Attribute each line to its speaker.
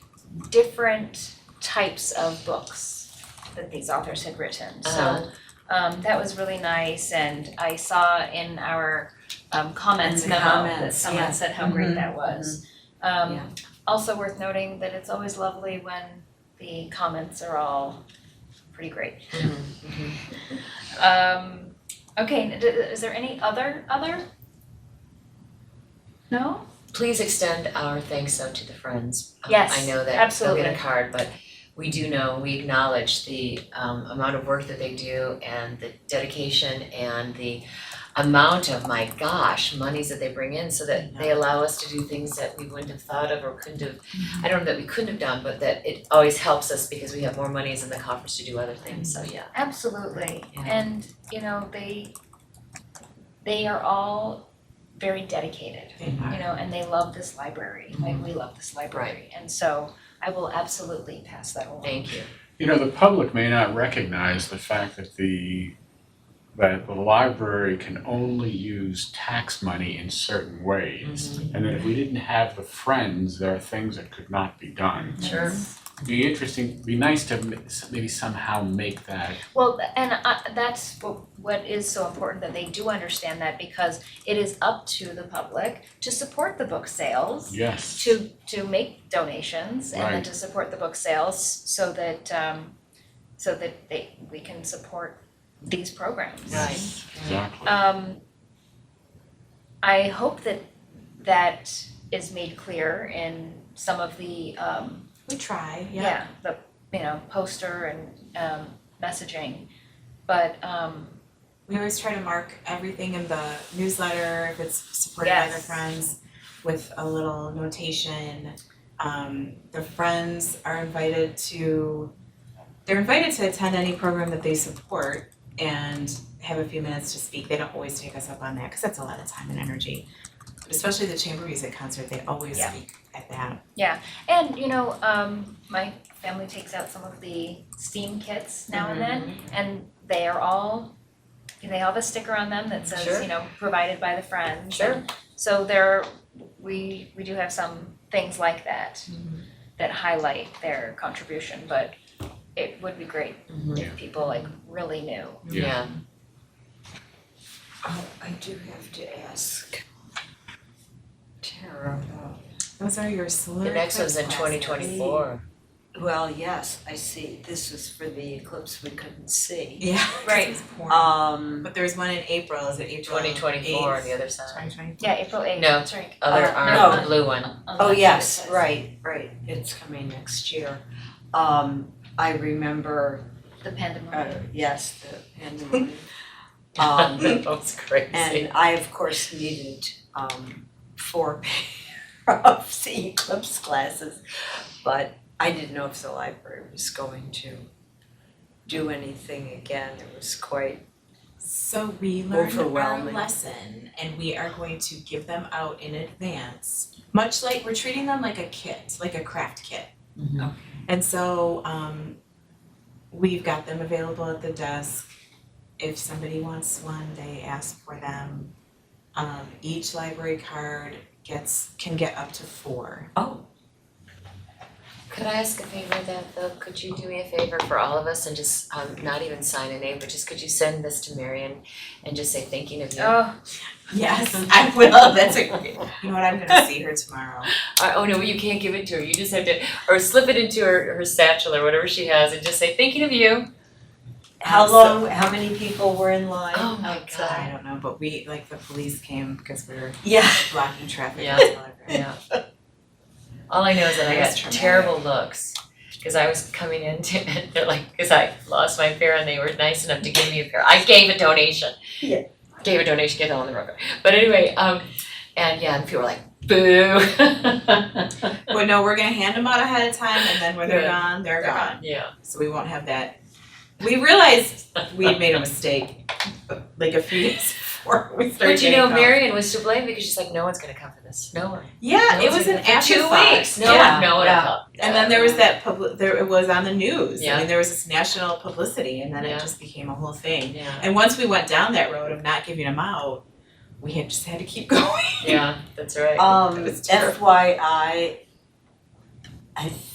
Speaker 1: different types of books that these authors had written, so
Speaker 2: So,
Speaker 1: um that was really nice and I saw in our um comments
Speaker 2: In the
Speaker 1: memo that
Speaker 2: comments,
Speaker 1: someone
Speaker 2: yeah. Mm-hmm.
Speaker 1: said how great
Speaker 3: Mhm,
Speaker 1: that was.
Speaker 2: Yeah.
Speaker 1: Um also worth noting that it's always lovely when the comments are all pretty great.
Speaker 2: Mm-hmm.
Speaker 1: Um okay, d- is there any other other? No?
Speaker 2: please extend our thanks out to the friends. Um,
Speaker 1: Yes,
Speaker 2: I know that they'll
Speaker 1: absolutely.
Speaker 2: get a card, but we do know, we acknowledge the um amount of work that they do and the dedication and the amount of, my gosh, monies that they bring in so that they allow us to do things that we wouldn't have thought of or couldn't have,
Speaker 1: Mm-hmm.
Speaker 2: I don't know that we couldn't have done, but that it always helps us because we have more monies in the coffers to do other things, so yeah.
Speaker 1: Absolutely,
Speaker 2: Yeah.
Speaker 1: and you know, they they are all very dedicated,
Speaker 2: Mm-hmm.
Speaker 1: you know, and they love this library, like we love this library. And so I will absolutely pass that along.
Speaker 2: Thank you.
Speaker 4: You know, the public may not recognize the fact that the, that the library can only use tax money in certain ways.
Speaker 1: Mm-hmm.
Speaker 4: And that if we didn't have the friends, there are things that could not be done.
Speaker 2: Sure.
Speaker 4: It'd Be interesting, it'd be nice to m- maybe somehow make that,
Speaker 1: Well, th- and I, that's what what is so important that they do understand that because it is up to the public to support the book sales.
Speaker 4: yes.
Speaker 1: to to make donations and then
Speaker 4: Right.
Speaker 1: to support the book sales so that um so that they we can support these programs.
Speaker 2: Right.
Speaker 4: Exactly.
Speaker 1: Um I hope that that is made clear in some of the um
Speaker 3: we try, yeah.
Speaker 1: yeah, the you know, poster and um messaging. But um
Speaker 3: We always try to mark everything in the newsletter, if it's supported by the
Speaker 1: Yes.
Speaker 3: friends, with a little notation. Um, the friends are invited to, they're invited to attend any program that they support and have a few minutes to speak. They don't always take us up on that, because that's a lot of time and energy. But especially the chamber music concert, they always
Speaker 1: Yeah.
Speaker 3: speak at that.
Speaker 1: and you know, um my family takes out some of the steam kits now and then.
Speaker 2: Mm-hmm.
Speaker 1: and they are all they all have a sticker on them that says,
Speaker 2: Sure.
Speaker 1: you know, provided by the friends.
Speaker 2: Sure.
Speaker 1: And So there we we do have some things like that
Speaker 2: Mm-hmm.
Speaker 1: that highlight their contribution, but it would be great
Speaker 2: Mhm.
Speaker 1: if people like really knew.
Speaker 4: Yeah.
Speaker 2: Yeah.
Speaker 5: Oh, I do have to ask Tara about,
Speaker 3: Those are your solar
Speaker 2: The next one's in
Speaker 3: eclipse
Speaker 2: twenty
Speaker 3: classes.
Speaker 2: twenty four.
Speaker 5: well, yes, I see, this was for the eclipse we couldn't see.
Speaker 3: Yeah, 'cause
Speaker 1: Right.
Speaker 3: it's pouring.
Speaker 5: Um,
Speaker 3: But there's one in April, is it April
Speaker 2: Twenty twenty four on the other
Speaker 3: Twenty
Speaker 2: side.
Speaker 3: twenty four.
Speaker 1: Yeah, April eighth,
Speaker 2: No.
Speaker 1: that's right.
Speaker 2: Other
Speaker 1: Uh,
Speaker 2: arm, the
Speaker 1: no.
Speaker 2: blue one.
Speaker 1: On the
Speaker 5: oh,
Speaker 1: left
Speaker 5: yes,
Speaker 1: side.
Speaker 5: right, right, it's coming next year. Um, I remember,
Speaker 1: The
Speaker 5: uh,
Speaker 1: pandemonium.
Speaker 5: yes, the pandemonium. Um,
Speaker 2: That was crazy.
Speaker 5: And I, of course, needed um four pair of the eclipse glasses. But I didn't know if the library was going to do anything again. It was quite,
Speaker 3: So we learned our
Speaker 5: Overwhelming.
Speaker 3: lesson and we are going to give them out in advance. Much like, we're treating them like a kit, like a craft kit.
Speaker 2: Mhm.
Speaker 3: And so um we've got them available at the desk. If somebody wants one, they ask for them. Um each library card gets, can get up to four.
Speaker 5: oh,
Speaker 2: Could I ask a favor that though, could you do me a favor for all of us and just um not even sign a name, but just could you send this to Marion and just say thinking of you?
Speaker 1: Oh,
Speaker 3: Yes, I will, that's a great, you know what, I'm gonna see her tomorrow.
Speaker 2: Uh, oh no, you can't give it to her, you just have to, or slip it into her her satchel or whatever she has and just say thinking of you.
Speaker 5: how
Speaker 3: Awesome.
Speaker 5: long, how many people were in line
Speaker 2: Oh my
Speaker 5: outside?
Speaker 3: I don't know, but we, like, the police came because we were
Speaker 5: Yeah.
Speaker 3: blocking traffic
Speaker 2: Yeah.
Speaker 3: on the library.
Speaker 2: Yeah. All I know is that I got
Speaker 3: That's traumatic.
Speaker 2: terrible looks, cause I was coming in to, they're like, cause I lost my pair and they were nice enough to give me a pair, I gave a donation.
Speaker 5: Yeah.
Speaker 2: Gave a donation, get on the road, but anyway, um, and yeah, and people were like, boo.
Speaker 3: But no, we're gonna hand them out ahead of time and then when they're
Speaker 2: Good.
Speaker 3: gone, they're gone.
Speaker 2: Yeah,
Speaker 3: So we won't have that. We realized we'd made a mistake like a few days before we started
Speaker 2: but you know,
Speaker 3: getting them.
Speaker 2: Marion was to blame because she's like, no one's gonna come for this, no one.
Speaker 3: Yeah,
Speaker 2: No
Speaker 3: it
Speaker 2: one's
Speaker 3: was an
Speaker 2: gonna come." For
Speaker 3: afterthought.
Speaker 2: Two weeks, no
Speaker 3: Yeah.
Speaker 2: one, no one
Speaker 3: yeah.
Speaker 2: will come.
Speaker 3: And then there was that public, there, it was on the news.
Speaker 2: Yeah.
Speaker 3: I mean, there was this national publicity and then
Speaker 2: Yeah.
Speaker 3: it just became a whole thing.
Speaker 2: Yeah,
Speaker 3: And once we went down that road of not giving them out, we had just had to keep going.
Speaker 2: yeah, that's right.
Speaker 5: Um,
Speaker 3: It was terrible.
Speaker 5: FYI, I